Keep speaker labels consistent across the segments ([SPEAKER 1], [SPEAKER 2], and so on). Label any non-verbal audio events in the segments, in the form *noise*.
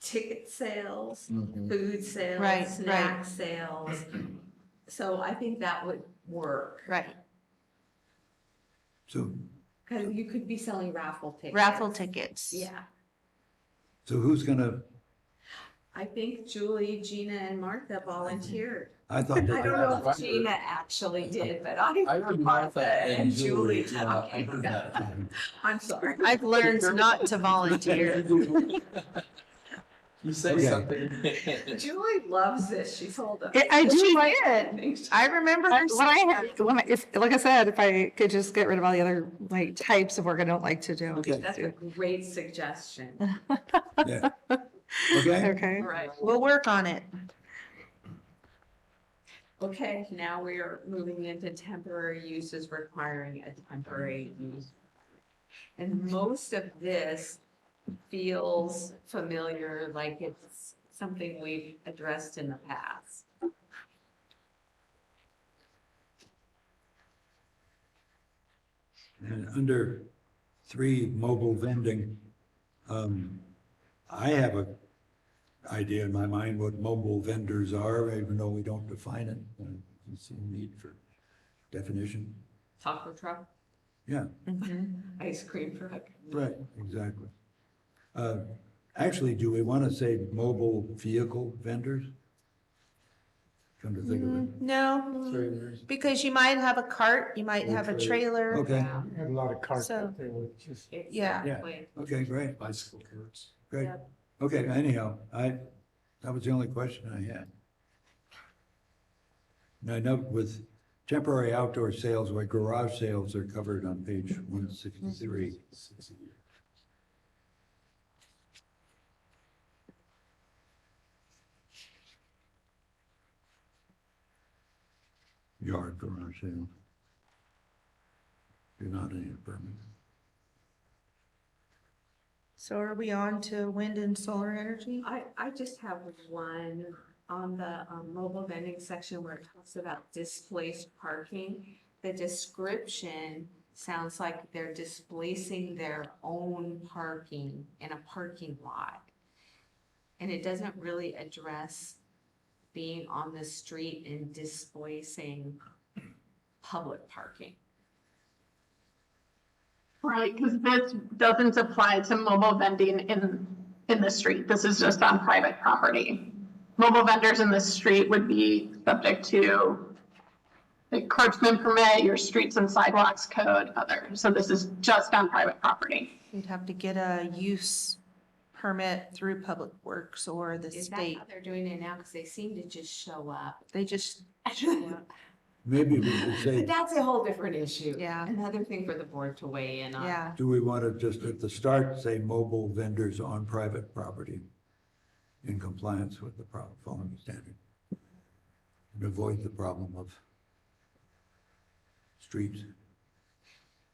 [SPEAKER 1] ticket sales,
[SPEAKER 2] Mhm.
[SPEAKER 1] food
[SPEAKER 3] Right, right.
[SPEAKER 1] sales, snack sales. So I think that would work,
[SPEAKER 3] Right,
[SPEAKER 4] So,
[SPEAKER 1] because you could be selling raffle tickets.
[SPEAKER 3] raffle tickets.
[SPEAKER 1] Yeah,
[SPEAKER 4] so who's gonna,
[SPEAKER 1] I think Julie, Gina, and Martha volunteered.
[SPEAKER 4] I
[SPEAKER 1] I
[SPEAKER 4] thought.
[SPEAKER 1] don't know if
[SPEAKER 2] Right.
[SPEAKER 1] Gina actually did, but I,
[SPEAKER 2] I heard Martha and Julie. yeah, I
[SPEAKER 1] Okay.
[SPEAKER 2] heard that.
[SPEAKER 1] I'm
[SPEAKER 2] *laughs*
[SPEAKER 1] sorry.
[SPEAKER 3] I've learned not to
[SPEAKER 1] *laughs*
[SPEAKER 3] volunteer.
[SPEAKER 2] You say
[SPEAKER 4] Okay.
[SPEAKER 2] something.
[SPEAKER 1] Julie loves this, she told us.
[SPEAKER 5] I- I do like
[SPEAKER 1] I
[SPEAKER 5] it.
[SPEAKER 1] think she-
[SPEAKER 3] I remember her.
[SPEAKER 5] When I had, *laughs* when I, if, like I said, if I could just get rid of all the other like types of work I don't like to do. I'd
[SPEAKER 4] Okay.
[SPEAKER 5] just
[SPEAKER 1] That's a
[SPEAKER 5] do-
[SPEAKER 1] great suggestion.
[SPEAKER 3] *laughs*
[SPEAKER 4] Yeah.
[SPEAKER 1] *laughs*
[SPEAKER 4] Okay,
[SPEAKER 5] Okay,
[SPEAKER 1] Right.
[SPEAKER 3] We'll work on it.
[SPEAKER 1] Okay, now we are moving into temporary uses requiring a temporary use. And most of this feels familiar, like it's something we've addressed in the past.
[SPEAKER 4] and under three, mobile vending, um, I have a idea in my mind what mobile vendors are, even though we don't define it. Uh, You see a need for definition.
[SPEAKER 1] Taco truck,
[SPEAKER 4] Yeah,
[SPEAKER 3] Mm-hmm.
[SPEAKER 1] ice cream truck.
[SPEAKER 4] right, exactly. Uh, actually, do we want to say mobile vehicle vendors? Come to think of it.
[SPEAKER 3] Mm-hmm.
[SPEAKER 1] Mm.
[SPEAKER 3] No, because you might have a cart, you might have a trailer.
[SPEAKER 4] Okay,
[SPEAKER 1] Yeah,
[SPEAKER 6] *laughs* Had a lot of cars
[SPEAKER 3] So-
[SPEAKER 6] out there with just
[SPEAKER 3] Yeah.
[SPEAKER 1] Exactly.
[SPEAKER 4] okay, great.
[SPEAKER 2] Bicycle courts.
[SPEAKER 4] Great.
[SPEAKER 1] Yep.
[SPEAKER 4] Okay, anyhow, I, that was the only question I had. And I know with temporary outdoor sales, like garage sales are covered on page one sixty-three. Yard garage sale. You're not in a permit.
[SPEAKER 3] So are we on to wind and solar energy?
[SPEAKER 1] I, I just have one on the um, mobile vending section where it talks about displaced parking. The description sounds like they're displacing their own parking in a parking lot. And it doesn't really address being on the street and displacing public parking.
[SPEAKER 7] Right, because this doesn't apply to mobile vending in, in the street. This is just on private property. Mobile vendors in the street would be subject to the curbsman permit, your streets and sidewalks code, other. So this is just on private property.
[SPEAKER 3] You'd have to get a use permit through Public Works or the
[SPEAKER 1] Is that
[SPEAKER 3] state.
[SPEAKER 1] how they're doing it now? Because they seem to just show
[SPEAKER 3] *laughs*
[SPEAKER 1] up.
[SPEAKER 3] They just,
[SPEAKER 4] Maybe we should
[SPEAKER 1] But
[SPEAKER 4] say,
[SPEAKER 1] that's a whole different issue.
[SPEAKER 3] Yeah.
[SPEAKER 1] Another thing for the board to weigh in on.
[SPEAKER 3] yeah,
[SPEAKER 4] do we want to just at the start say mobile vendors on private property in compliance with the prob- following standard? And avoid the problem of streets.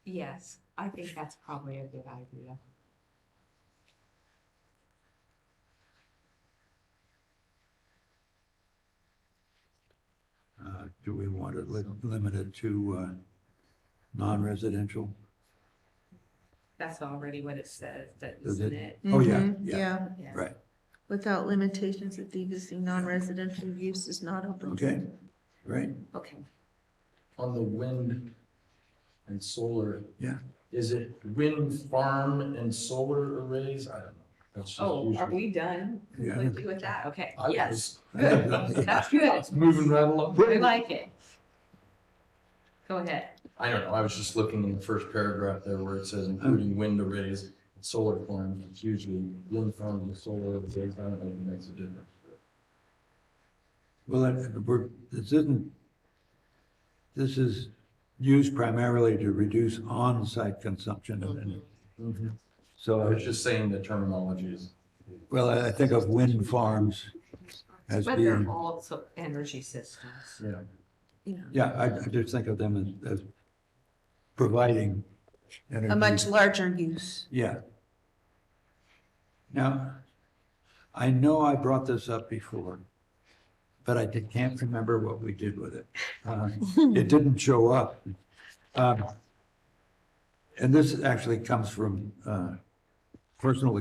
[SPEAKER 1] Yes, I think that's probably a good idea.
[SPEAKER 4] Uh, Do we want it li- limited to uh, non-residential?
[SPEAKER 1] That's already what it says, that
[SPEAKER 4] Is
[SPEAKER 1] isn't
[SPEAKER 4] it?
[SPEAKER 1] it?
[SPEAKER 4] Oh, yeah,
[SPEAKER 3] Mhm,
[SPEAKER 4] yeah,
[SPEAKER 3] yeah.
[SPEAKER 1] Yeah.
[SPEAKER 4] right,
[SPEAKER 3] Without limitations if the existing non-residential use is not open. to-
[SPEAKER 4] okay, great. *laughs*
[SPEAKER 1] Okay.
[SPEAKER 2] On the wind and solar.
[SPEAKER 4] Yeah.
[SPEAKER 2] Is it wind farm and solar arrays? I don't know. That's just
[SPEAKER 1] Oh, are
[SPEAKER 2] usual.
[SPEAKER 1] we done
[SPEAKER 4] Yeah.
[SPEAKER 1] completely with that? Okay,
[SPEAKER 2] I
[SPEAKER 4] *laughs*
[SPEAKER 1] yes,
[SPEAKER 2] was-
[SPEAKER 1] that's good.
[SPEAKER 2] It's Moving right along.
[SPEAKER 1] We like it. Go ahead.
[SPEAKER 2] I don't know, I was just looking in the first paragraph there where it says including wind arrays, and solar farms, it's usually wind farms and solar arrays, I don't know if it makes a difference.
[SPEAKER 4] Well, it- we're, this isn't, this is used primarily to reduce on-site consumption of energy. So
[SPEAKER 2] I
[SPEAKER 4] I
[SPEAKER 2] was just saying the terminology is.
[SPEAKER 4] Well, I I think of wind farms as
[SPEAKER 1] But they're
[SPEAKER 4] being,
[SPEAKER 1] all so- energy systems.
[SPEAKER 2] Yeah.
[SPEAKER 4] yeah, I I just think of them as as providing
[SPEAKER 3] A much
[SPEAKER 4] energy.
[SPEAKER 3] larger use.
[SPEAKER 4] Yeah. Now, I know I brought this up before, but I did- can't remember what we did with it.
[SPEAKER 3] *laughs*
[SPEAKER 4] Uh, It didn't show up. Um, And this actually comes from uh, personal